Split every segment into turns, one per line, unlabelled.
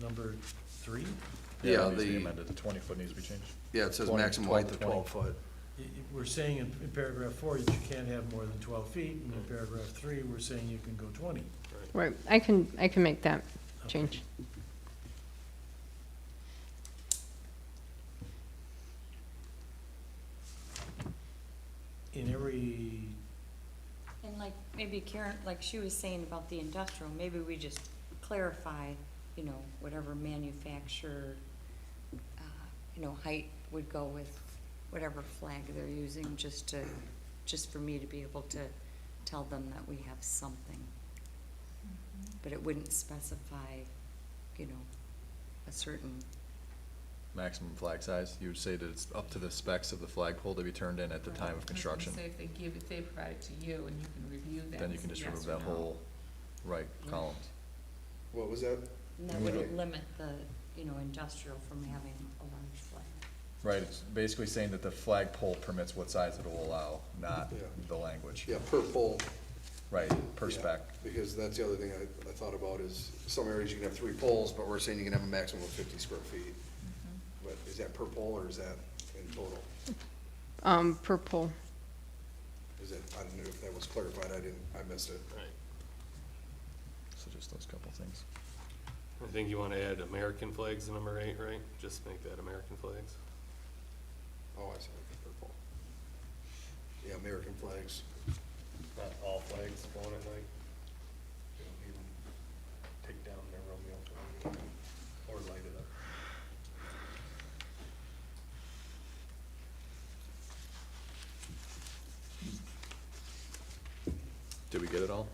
number three?
Yeah,
it needs to be
the-
amended. The twenty foot needs to be changed.
Yeah, it says
20,
maximum
12
height
to
of twelve foot.
Y- y- We're saying in in paragraph four that you can't have more than twelve feet, and in paragraph three, we're saying you can go twenty.
Right, I can, I can make that change.
In every,
And like, maybe Karen, like she was saying about the industrial, maybe we just clarify, you know, whatever manufacturer, uh, you know, height would go with whatever flag they're using, just to, just for me to be able to tell them that we have something. But it wouldn't specify, you know, a certain,
Maximum flag size, you would say that it's up to the specs of the flagpole to be turned in at the time of construction.
So if they give, if they provide it to you and you can review that.
Then you
and
can just
say yes
remove
or
that
no.
whole right column.
What was that?
and that would limit the, you know, industrial from having a large flag.
Right, it's basically saying that the flagpole permits what size it will allow, not
Yeah.
the language.
Yeah, per pole.
Right, per
yeah,
spec.
Because that's the other thing I, I thought about is some areas you can have three poles, but we're saying you can have a maximum of fifty square feet.
Mm-hmm.
But is that per pole or is that in total?
Um, purple,
Is that, I don't know if that was clarified, I didn't, I missed it.
So just those couple things.
I think you want to add American flags to number eight, right? Just make that American flags.
Oh, I see, okay, per pole. Yeah, American flags.
Not all flags flown at night. You don't need 'em. Take down their Romeo flag or light it up.
Did we get it all?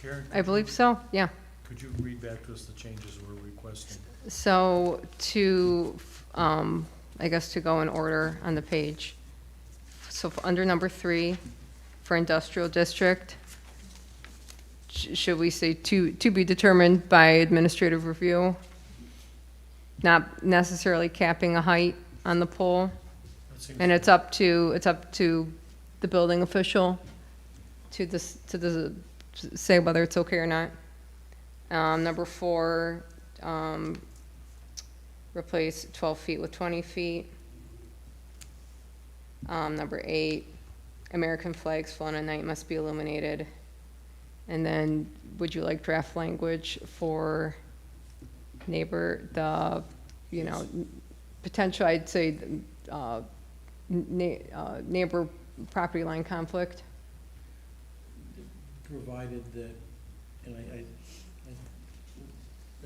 Karen,
I believe so, yeah.
could you read back to us the changes we're requesting?
So to, um, I guess to go in order on the page. So for- under number three, for industrial district, sh- should we say to, to be determined by administrative review? Not necessarily capping a height on the pole?
That seems-
And it's up to, it's up to the building official to this, to the, to say whether it's okay or not. Um, number four, um, replace twelve feet with twenty feet. Um, number eight, American flags flown at night must be illuminated. And then, would you like draft language for neighbor, the, you know, potential, I'd say, uh, na- uh, neighbor property line conflict.
provided that, and I, I, I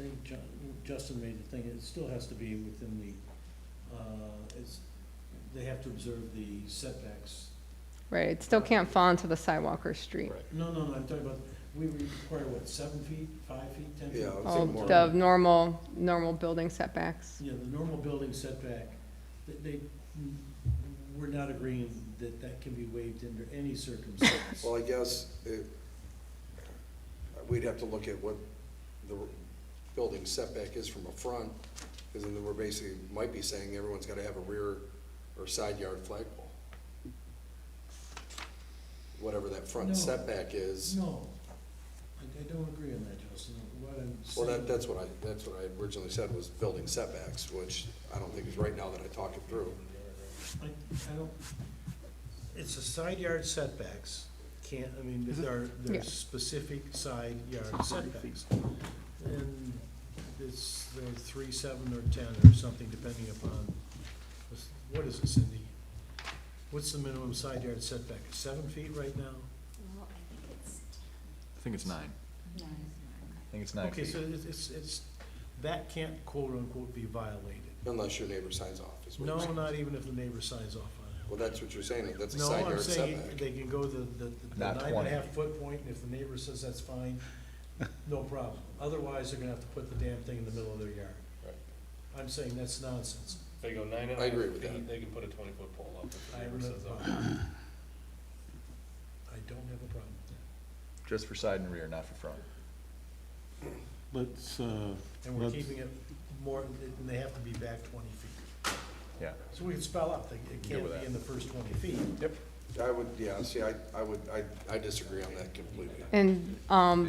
think Ju- Justin made the thing, it still has to be within the, uh, it's, they have to observe the setbacks.
Right, it still can't fall into the sidewalk or street.
Right.
No, no, no, I'm talking about, we require what, seven feet, five feet, ten feet?
Yeah, I would
All
say more.
the normal, normal building setbacks.
Yeah, the normal building setback, that they, we're not agreeing that that can be waived under any circumstance.
Well, I guess it, we'd have to look at what the building setback is from a front, because then we're basically, might be saying everyone's gotta have a rear or side yard flagpole. Whatever that
No.
front setback is,
No, I, I don't agree on that, Justin, what I'm
well,
saying.
that, that's what I, that's what I originally said was building setbacks, which I don't think is right now that I talk it through.
I, I don't, it's a side yard setbacks, can't, I mean, there are, there
Yeah.
are specific side yard setbacks. And it's, there are three, seven, or ten, or something, depending upon, what's- what is it, Cindy? What's the minimum side yard setback, Is seven feet right now?
Well, I think it's
I think it's nine.
nine.
I think it's nine
Okay,
feet.
so it's, it's, it's, that can't quote-unquote be violated.
Unless your neighbor signs off, is what
No,
you're saying.
not even if the neighbor signs off on it.
Well, that's what you're saying, that's a
No,
side
I'm
yard
saying
setback.
they can go the, the the
Not
nine and a
20.
half foot point, and if the neighbor says that's fine, no problem. Otherwise, they're gonna have to put the damn thing in the middle of their yard.
Right.
I'm saying that's nonsense.
If they go nine and a
I
half
agree with that.
feet, they can put a twenty-foot pole up. if the
I
neighbor
really-
says, "Oh,
I don't have a problem with that.
Just for side and rear, not for front.
Let's, uh,
And we're
That's-
keeping it more, and they have to be back twenty feet.
Yeah.
So we can spell out, they- it
Good
can't
with
be
that.
in the first twenty feet.
I would, yeah, see, I, I would, I, I disagree on that completely.
And, um,